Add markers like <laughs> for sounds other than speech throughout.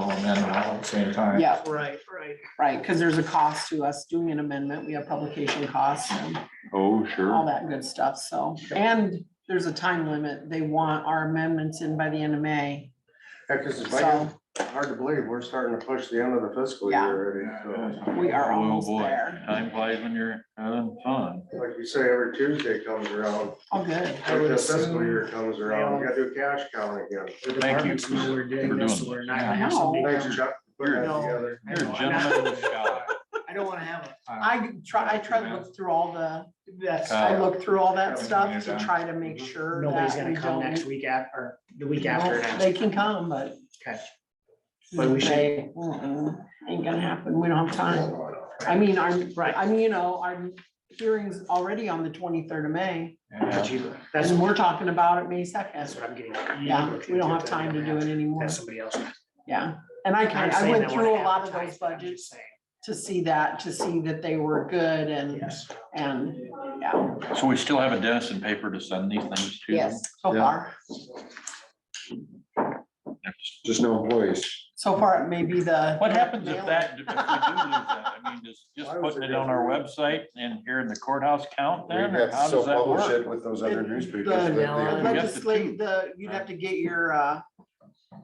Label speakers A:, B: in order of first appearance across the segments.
A: at the same time.
B: Yeah,
C: Right, right.
B: right, because there's a cost to us doing an amendment. We have publication costs and
D: Oh,
B: all
D: sure.
B: that good stuff, so. And there's a time limit. They want our amendments in by the end of May,
E: Heck, this is
B: so
E: hard to believe. We're starting to push the end of the fiscal
B: Yeah.
E: year already.
B: we are
D: Oh,
B: almost
D: boy.
B: there.
D: Time flies when you're having fun.
E: So, Like you say, every Tuesday comes around,
B: All good.
E: like the fiscal year comes around, we gotta do cash count again.
C: The
D: Thank you
C: departments know we're
D: for
C: doing this, so
D: doing
C: we're
D: this.
C: not.
D: Yeah.
C: gonna have somebody
E: Thanks,
C: come-
E: Chuck. for putting that together.
C: I
D: You're a
C: know, I'm
D: gentleman
B: <laughs>
C: not-
D: of the shop.
C: I don't wanna have a,
B: I try, I try to look through all the,
C: that's,
B: I
D: Uh,
B: look through all that
A: Yeah.
B: stuff to try to make sure
C: Mm-hmm. nobody's
B: that we
C: gonna come next
B: don't.
C: week at, or the week after
B: Well,
C: next.
B: They can come, but.
C: Okay. But we should-
B: They, mm-mm, Ain't gonna happen. We don't have time. I mean, I'm,
C: Right.
B: I mean, you know, our hearing's already on the twenty-third of May,
C: But
A: Yeah.
C: you- That's,
B: and we're talking about it May
C: that's
B: second.
C: what I'm getting.
B: Yeah, we don't have time to do it anymore.
C: That's somebody else.
B: Yeah, and I kind,
C: Not
B: I
C: saying
B: went
C: I
B: through a
C: wanna
B: lot of those
C: advertise, but I'm
B: budgets
C: just saying,
B: to see that, to see that they were good and,
C: Yes.
B: and, yeah,
D: So we still have a desk and paper to send these things to? them?
B: yes, so far.
E: Just no voice.
B: So far, it may be the.
D: What happens if
B: mailing.
D: that, if we do lose that? I mean, just, just
E: Why was
D: putting
E: it
D: it on our website and here in the courthouse count
E: We
D: then?
E: have
D: or
E: to
D: How does that
E: self-publish
D: work?
E: it with those other
B: It-
E: newspapers.
B: the-
E: that they-
C: No,
B: The
D: We got the
B: Legislate,
D: two.
B: the, you'd have to get your uh,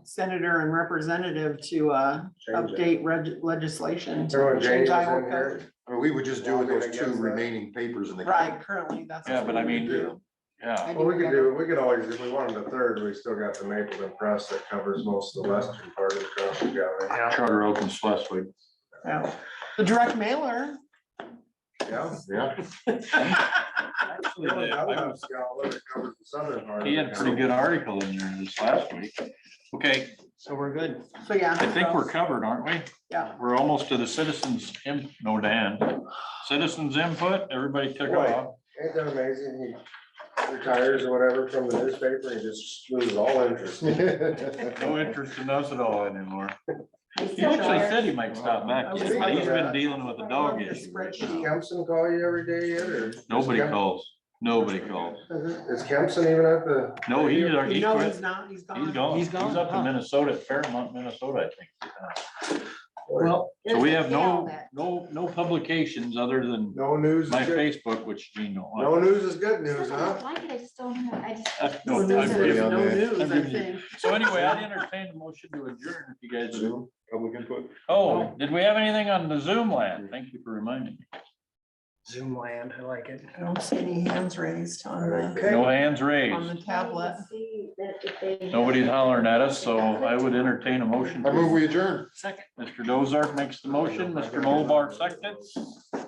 B: senator and representative to uh,
E: Change it.
B: update reg- legislation. to
E: Remember when Jane
B: change
E: was
B: Iowa
E: in
B: code.
E: here?
F: I mean, we would just do with
E: Well, I
F: those
E: guess
F: two
E: that-
F: remaining papers in the.
B: Right, currently, that's.
D: Yeah, but I
B: what we
D: mean,
B: do.
D: Yeah,
B: I
E: Well, we
B: think
E: could
B: gotta-
E: do, we could always, if we wanted a third, we still got the Mapleton Press that covers most of the western part of the country. Yeah,
D: Charter Oak and Schleswig.
B: yeah. The direct mailer.
E: yeah.
D: <laughs> Actually,
E: Yeah,
D: I
E: that
D: was
E: one's got a little covered the southern part of
D: He had a
E: the
D: pretty
E: country.
D: good article in there this last week. Okay,
C: So we're good.
B: So, yeah.
D: I think
B: so-
D: we're covered, aren't we?
B: Yeah.
D: We're almost to the citizens, in- no, Dan, citizens input, everybody took
E: Right.
D: off.
E: Ain't that amazing? He retires or whatever from the newspaper, he just loses all
F: <laughs>
E: interest.
D: No interest in us at all anymore. He
B: Yeah,
D: actually
B: sure.
D: said he might stop back, but
B: I was
D: he's been
E: wondering.
D: dealing with a dog issue. right
B: Spreadsheet.
D: now.
E: Kempson call you every day yet, or?
D: Nobody
E: Is Kemp-
D: calls, nobody calls.
E: <laughs> Is Kempson even at the?
D: No, he, he
B: No,
D: quit.
B: he's not, he's gone.
D: He's gone.
C: He's
D: He's
C: gone,
D: up
C: huh?
D: in Minnesota, Fairmont, Minnesota, I think.
C: Well,
D: So we have no,
G: Yeah.
D: no, no publications other than
E: No news is
D: my
E: good,
D: Facebook, which Gene don't like.
E: no news is good news,
G: Sometimes I
E: huh?
G: like it, I just don't know, I just.
D: Uh,
B: No
D: no,
B: news,
D: I've
B: there's
D: given-
B: no news,
D: I've
B: I
D: given you-
B: think.
D: So anyway, I'd entertain a motion to adjourn if you guys,
F: Public input.
D: oh, did we have anything on the Zoom land? Thank you for reminding me.
C: Zoom land, I like
B: <laughs>
C: it.
B: I don't see any hands raised on the,
D: No hands
B: on the
D: raised.
B: tablet.
D: Nobody's hollering at us, so I would entertain a motion.
F: I move we adjourn.
C: Second.
D: Mr. Dozark makes the motion, Mr. Mulbar seconds.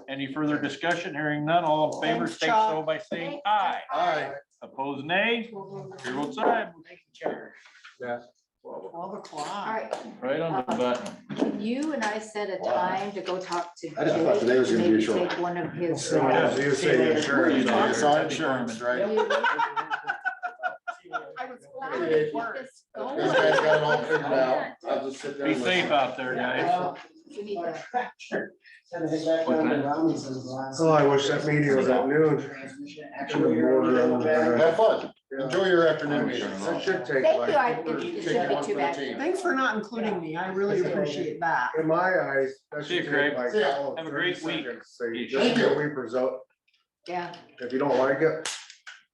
D: Any further discussion? Hearing none, all in favor,
B: Thanks,
D: state so by saying aye.
E: Aye.
D: Opposed, nay? Here votes aye.
B: Twelve o'clock.
G: All right,
D: Right on the button.
G: can you and I set a
F: Wow.
G: time to go talk to?
F: I just thought
G: Jake
F: today was gonna be
G: maybe
F: a short
G: Take one of his.
E: So,
G: uh,
E: as you say, the insurance.
F: It's our insurance, right?
G: you-
C: <laughs>
B: I was
G: Well, I'm
B: hoping
G: gonna
B: it
G: keep
B: worked.
G: this going.
F: This guy's got it all figured out. I'll just sit there.
D: Be
F: and listen.
D: safe out there, guys.
B: <laughs>
G: We need to-
E: Oh, I wish that meeting was at noon.
F: Have fun. Enjoy your afternoon meeting.
E: That should take
G: Thank
E: like-
G: you, I- it shouldn't
F: Take
G: be
F: one
G: too
F: for the
G: bad.
F: team.
B: Thanks for not including me. I really appreciate that.
E: In my eyes, that
D: See you,
E: should
D: Craig.
E: take like.
F: See ya.
E: all of
D: Have a
E: 30
D: great week.
E: seconds. Say,
D: You
E: just
F: too.
E: a weepers out.
G: Yeah,
E: If you don't like it,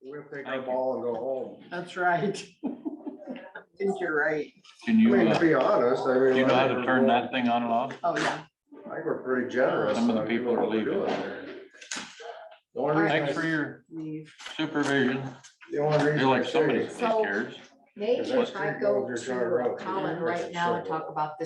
E: we'll take our
D: Thank you.
E: ball and go home.
B: That's right. <laughs> I think you're right.
D: Can
E: I
D: you,
E: mean,
D: uh,
E: to be honest, I mean.
D: do you know how to
E: like,
D: turn that thing on and off?
B: Oh, yeah.
E: I think we're pretty generous.
D: Some of the
E: on doing
D: people are
E: what we're
D: leaving.
E: doing there. The only reason I-
D: Thanks for your
B: Leave.
D: supervision.
E: the only reason
D: You're
E: I
D: like
E: say
D: somebody
E: is
D: that cares.
G: maybe
E: Is that
G: if I
E: street
G: go
E: over your side road?
G: to Colin right now and talk about this.